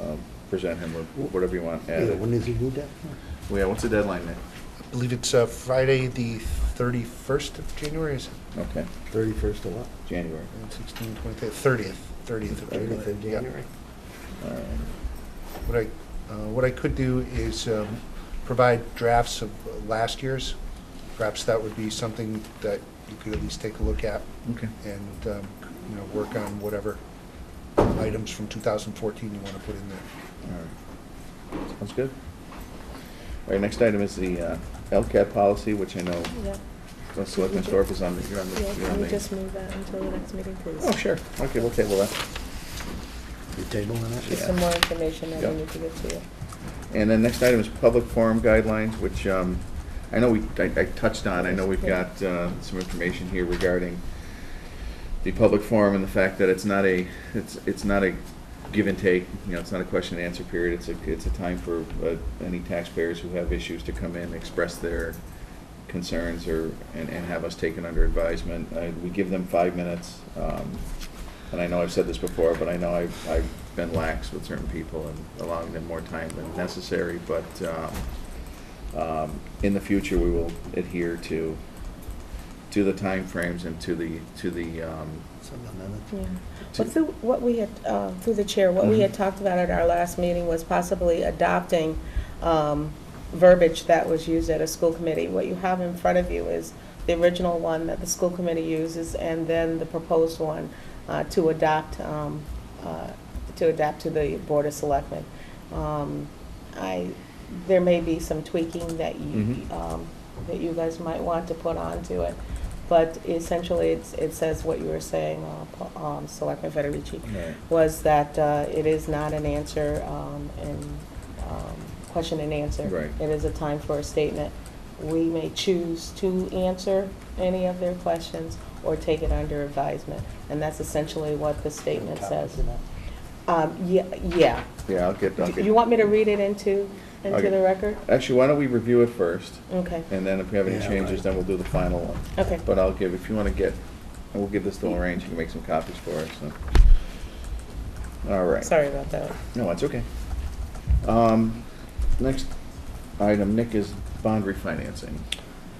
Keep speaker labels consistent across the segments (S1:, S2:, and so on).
S1: uh, present him with whatever you want
S2: Yeah,
S1: added.
S2: when is he due that?
S1: Well, Yeah, what's the deadline, Nick?
S3: I believe it's uh, Friday, the 31st of January, is it?
S1: Okay,
S2: Thirty-first of what?
S1: January.
S3: 16, 20, 30th, 30th of January.
S2: Thirtieth of
S3: Yeah.
S2: January?
S1: All right.
S3: What I, uh, what I could do is um, provide drafts of last year's. Perhaps that would be something that you could at least take a look at
S1: Okay.
S3: and, um, you know, work on whatever items from 2014 you want to put in there.
S1: All right. Sounds good. All right, next item is the uh, LCAT policy, which I know
S4: Yeah,
S1: uh, Selectman Thorpe is on the, you're on the.
S4: yeah,
S1: you're on
S4: can we
S1: the-
S4: just move that until the next meeting, please?
S1: Oh, sure. Okay, we'll table that.
S2: You tabling
S4: Just
S1: Yeah.
S2: that?
S4: some more information that
S1: Yeah.
S4: we need to give to you.
S1: And then next item is public forum guidelines, which um, I know we, I I touched on, I know we've got uh, some information here regarding the public forum and the fact that it's not a, it's, it's not a give and take, you know, it's not a question and answer period, it's a, it's a time for uh, any taxpayers who have issues to come in, express their concerns or, and, and have us taken under advisement. Uh, We give them five minutes, um, and I know I've said this before, but I know I've, I've been lax with certain people and allowing them more time than necessary, but, um, um, in the future, we will adhere to, to the timeframes and to the, to the, um,
S2: Something like
S4: Yeah.
S2: that.
S1: to-
S4: Well, through, what we had, uh, through the chair, what we had
S1: Mhm.
S4: talked about at our last meeting was possibly adopting um, verbiage that was used at a school committee. What you have in front of you is the original one that the school committee uses, and then the proposed one uh, to adopt, um, uh, to adapt to the Board of Selectmen. Um, I, there may be some tweaking that you,
S1: Mhm.
S4: um, that you guys might want to put onto it, but essentially, it's, it says what you were saying, uh, Pl- um, Selectman Federici,
S1: Right.
S4: was that, uh, it is not an answer, um, and, um, question and answer.
S1: Right.
S4: It is a time for a statement. We may choose to answer any of their questions or take it under advisement, and that's essentially what the statement says. Um, yeah, yeah.
S1: yeah, I'll get, I'll
S4: Do
S1: get.
S4: you want me to read it into, into
S1: Okay. Uh,
S4: the record?
S1: Actually, why don't we review it first,
S4: Okay,
S1: and then if we have any
S2: Yeah,
S1: changes,
S2: right.
S1: then we'll do the final one.
S4: okay.
S1: But uh, I'll give, if you want to get, and we'll give this to Lorraine, she can make some copies for us, so. All right.
S4: Sorry about that.
S1: No, it's okay. Um, Next item, Nick, is bond refinancing.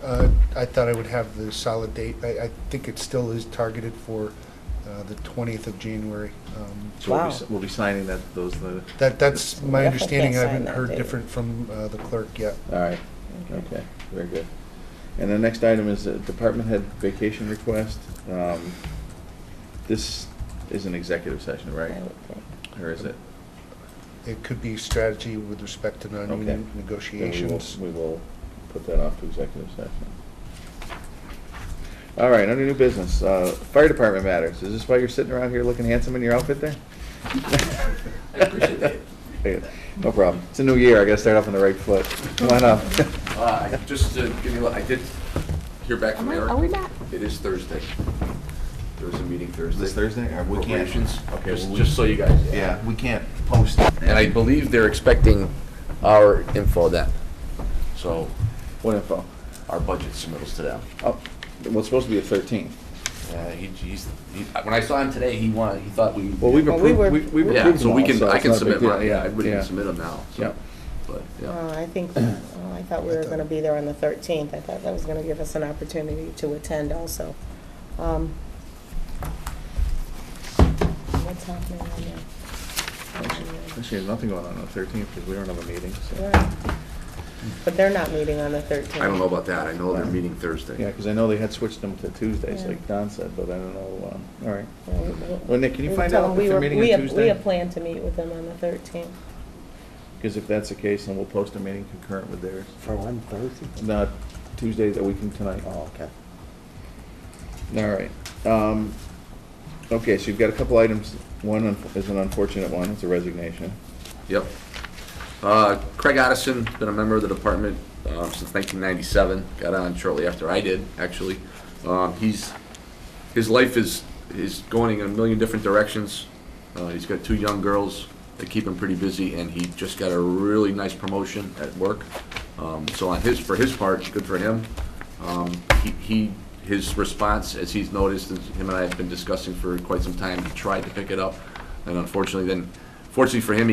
S3: Uh, I thought I would have the solid date. I, I think it still is targeted for uh, the 20th of January. Um,
S1: So we'll be
S4: Wow.
S1: s- We'll be signing that, those, the,
S3: That, that's my
S4: Definitely
S3: understanding.
S4: can't
S3: I
S4: sign
S3: haven't
S4: that
S3: heard
S4: date.
S3: different from uh, the clerk yet.
S1: all right, okay, very good. And the next item is uh, department head vacation request. Um, This is an executive session, right?
S4: I would think.
S1: Or is it?
S3: It could be strategy with respect to
S1: Okay.
S3: non-union
S1: Then we will-
S3: negotiations.
S1: We will put that off to executive session. All right, under new business, uh, fire department matters. Is this why you're sitting around here looking handsome in your outfit there?
S5: I appreciate
S1: it. No problem. It's a new year, I gotta start off on the right foot. Come on up.
S5: Uh, I- Just to give you, a- I did hear back
S4: Am
S5: from
S4: I-
S5: Eric.
S4: Are we back?
S5: It is Thursday. There's a meeting Thursday.
S1: This Thursday? Uh, we can't-
S5: Appropriations.
S1: okay,
S5: Just-
S1: well, we-
S5: Just so you guys.
S1: Yeah, we can't post.
S5: And I believe they're expecting our info then, so
S1: What info?
S5: our budget submittals to them.
S1: Oh, well, it's supposed to be the thirteenth.
S5: Uh, he- He's, he- Uh, when I saw him today, he wanted, he thought we.
S1: Well, we've
S4: Well, we
S1: approved,
S4: were-
S1: we- we've approved them
S5: Yeah, so we
S1: all,
S5: can, I
S1: it's
S5: can
S1: not a big
S5: submit mine,
S1: deal.
S5: yeah, everybody
S1: yeah.
S5: can submit them now,
S1: Yeah.
S5: so. But, yeah.
S4: Uh, I think, oh, I thought we were going to be there on the 13th. I thought that was going to give us an opportunity to attend also. Um, What's happening on
S1: Actually,
S4: there?
S1: actually, there's nothing going on on the thirteenth, because we don't have a meeting, so.
S4: Right. But they're not meeting on the 13th.
S5: I don't know about that. I know they're
S1: Yeah.
S5: meeting Thursday.
S1: Yeah, because I know they had switched them to Tuesdays,
S4: Yeah.
S1: like Don said, but I don't know, um, all right.
S4: Yeah, we- we-
S1: Well, Nick, can you
S4: we
S1: find
S4: tell
S1: out
S4: them
S1: if
S4: we
S1: they're
S4: were-
S1: meeting
S4: we
S1: on
S4: have-
S1: Tuesday?
S4: We have planned to meet with them on the 13th.
S1: Because if that's the case, then we'll post a meeting concurrent with theirs.
S2: For one Thursday?
S1: Not Tuesday, a week from tonight.
S2: Oh, okay.
S1: All right. Um, Okay, so you've got a couple items. One un- is an unfortunate one, it's a resignation.
S5: Yep. Uh, Craig Addison, been a member of the department um, since 1997, got on shortly after I did, actually. Um, He's, his life is, is going in a million different directions. Uh, He's got two young girls that keep him pretty busy, and he just got a really nice promotion at work. Um, So on his, for his part, good for him. Um, he- He, his response, as he's noticed, as him and I have been discussing for quite some time, he tried to pick it up, and unfortunately then, fortunately for him, he